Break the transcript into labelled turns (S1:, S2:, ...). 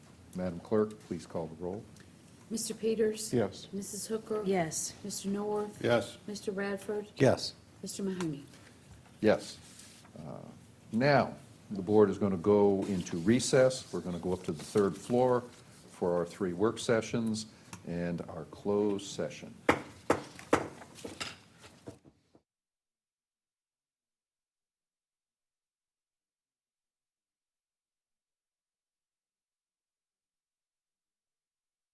S1: Madam Clerk, please call the roll.
S2: Mr. Peters?
S1: Yes.
S2: Mrs. Hooker?
S3: yes,
S2: Mr. Norworth?
S4: Yes.
S2: Mr. Radford?
S5: Yes.
S2: Mr. Mahoney?
S1: Yes. Uh, Now, the board is going to go into recess. We're going to go up to the third floor for our three work sessions and our closed session.